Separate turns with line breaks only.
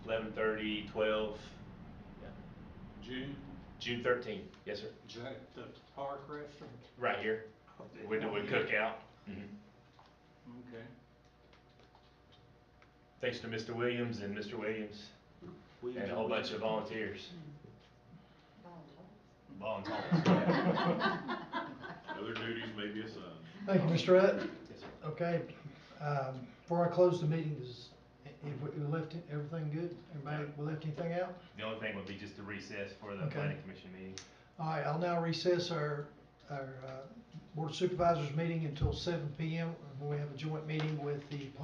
eleven thirty, twelve, yeah.
June,
June thirteenth, yes, sir,
June, the park restaurant?
right here, with the wood cookout. Mhm.
Okay.
Thanks to Mr. Williams and Mr. Williams
We
and a whole
do-
bunch of volunteers. Volunteers.
Other duties may be assigned.
Thank you, Mr. Rutt.
Yes, sir.
Okay, um, before I close the meeting, is, if we left everything good? Everybody, we left anything out?
The only thing would be just to recess for the
Okay.
planning commission meeting.
All right, I'll now recess our, our, uh, board supervisors meeting until seven P M. when We have a joint meeting with the